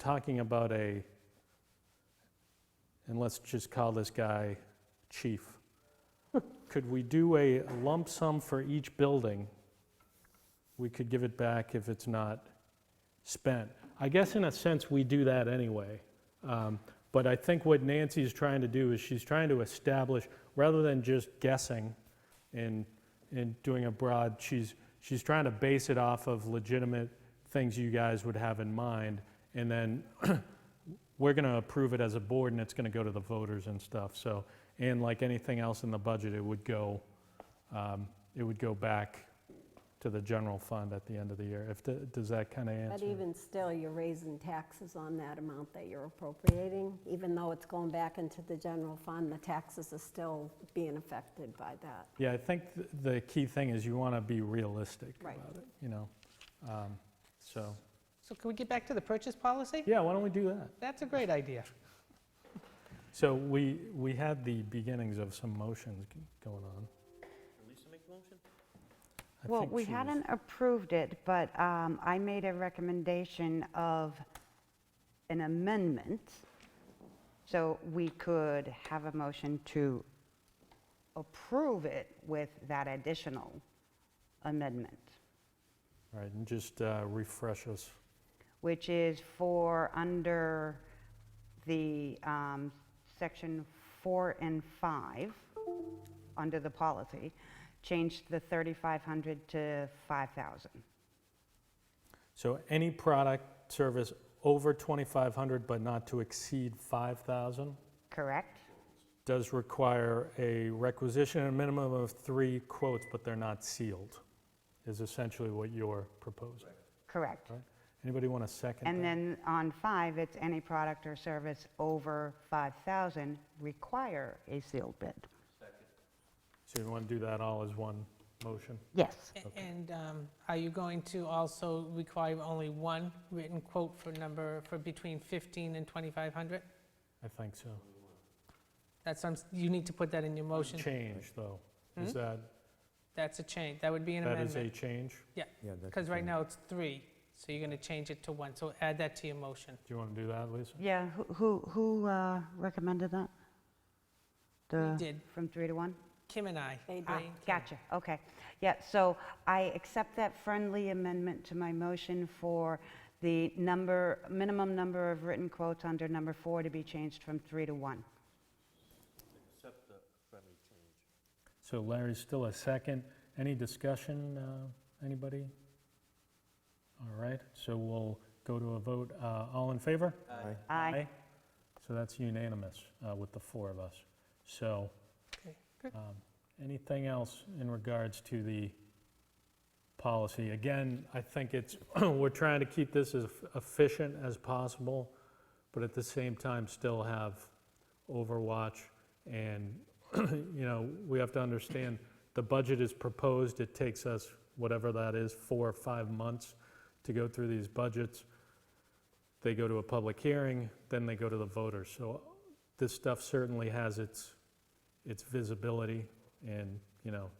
talking about a, and let's just call this guy Chief. Could we do a lump sum for each building? We could give it back if it's not spent. I guess in a sense, we do that anyway. Um, But I think what Nancy is trying to do is she's trying to establish, rather than just guessing and, and doing a broad, she's, she's trying to base it off of legitimate things you guys would have in mind. And then we're going to approve it as a board and it's going to go to the voters and stuff, so. And like anything else in the budget, it would go, um, it would go back to the general fund at the end of the year. If, the- does that kind of answer? But even still, you're raising taxes on that amount that you're appropriating, even though it's going back into the general fund, the taxes are still being affected by that. Yeah, I think th- the key thing is you want to be realistic Right. about it, you know? Um, So, So can we get back to the purchase policy? yeah, why don't we do that? That's a great idea. So we, we had the beginnings of some motions g- going on. Did Lisa make a motion? Well, we hadn't approved it, but um, I made a recommendation of an amendment, so we could have a motion to approve it with that additional amendment, All right, and just uh, refresh us. which is for under the um, section four and five, under the policy, change the 3,500 to 5,000. So any product, service over 2,500 but not to exceed 5,000 Correct? does require a requisition and a minimum of three quotes, but they're not sealed, is essentially what you're proposing. Correct. Right. Anybody want a second? And that? then on five, it's any product or service over 5,000 require a sealed bid. So you want to do that all as one motion? Yes. A- And um, are you going to also require only one written quote for number, for between 15 and 2,500? I think so. That's, some- you need to put that in your motion. Change, though. Is that, That's a change. That would be an that is a amendment. change? Yeah, that's Because the right thing. now it's three, so you're going to change it to one. So add that to your motion. Do you want to do that, Lisa? Yeah, who- who, who uh, recommended that? The- did. From three to one? Kim and I. They did. Ah, Ray and Kim. Gotcha, okay. Yeah, so I accept that friendly amendment to my motion for the number, minimum number of written quotes under number four to be changed from three to one. So Larry's still a second. Any discussion, uh, anybody? All right, so we'll go to a vote. Uh, All in favor? Aye. Aye. So that's unanimous uh, with the four of us. So Okay, good. um, anything else in regards to the policy? Again, I think it's, we're trying to keep this as efficient as possible, but at the same time, still have overwatch. And, you know, we have to understand, the budget is proposed, it takes us, whatever that is, four or five months to go through these budgets. They go to a public hearing, then they go to the voters. So this stuff certainly has its, its visibility and, you know,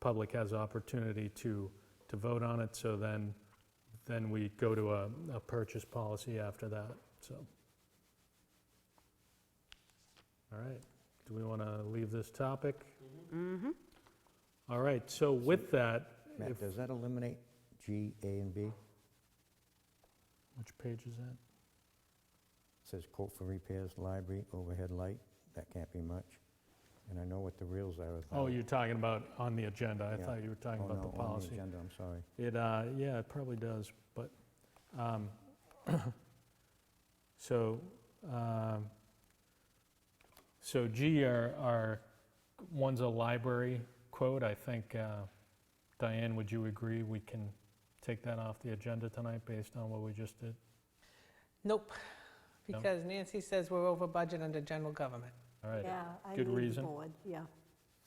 public has opportunity to, to vote on it. So then, then we go to a, a purchase policy after that, so. All right, do we want to leave this topic? Mm-hmm. All right, so with that, Matt, if- does that eliminate G, A, and B? It which page is that? says quote for repairs, library, overhead light, that can't be much. And I know what the reels are about. Oh, you're talking about on the agenda. I Yeah. thought you were talking Oh, about the no, on policy. agenda, I'm sorry. It, uh, yeah, it probably does, but, um, so, um, so G are, are, one's a library quote, I think, uh, Diane, would you agree we can take that off the agenda tonight based on what we just did? Nope, No. because Nancy says we're over budget under general government. All right, Yeah, I Good need the reason. board, yeah.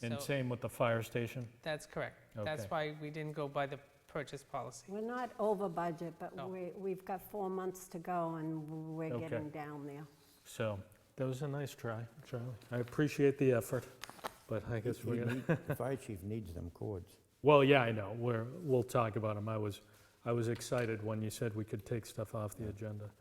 and So same with the fire station? that's correct. That's Okay. why we didn't go by the purchase policy. We're not over budget, but No. we, we've got four months to go and we're Okay. getting down there. So, that was a nice try, Charlie. I appreciate the effort, but I guess He we're gonna. need- The fire chief needs them cords. Well, yeah, I know, we're, we'll talk about them. I was, I was excited when you said we could take stuff off the Yeah. agenda.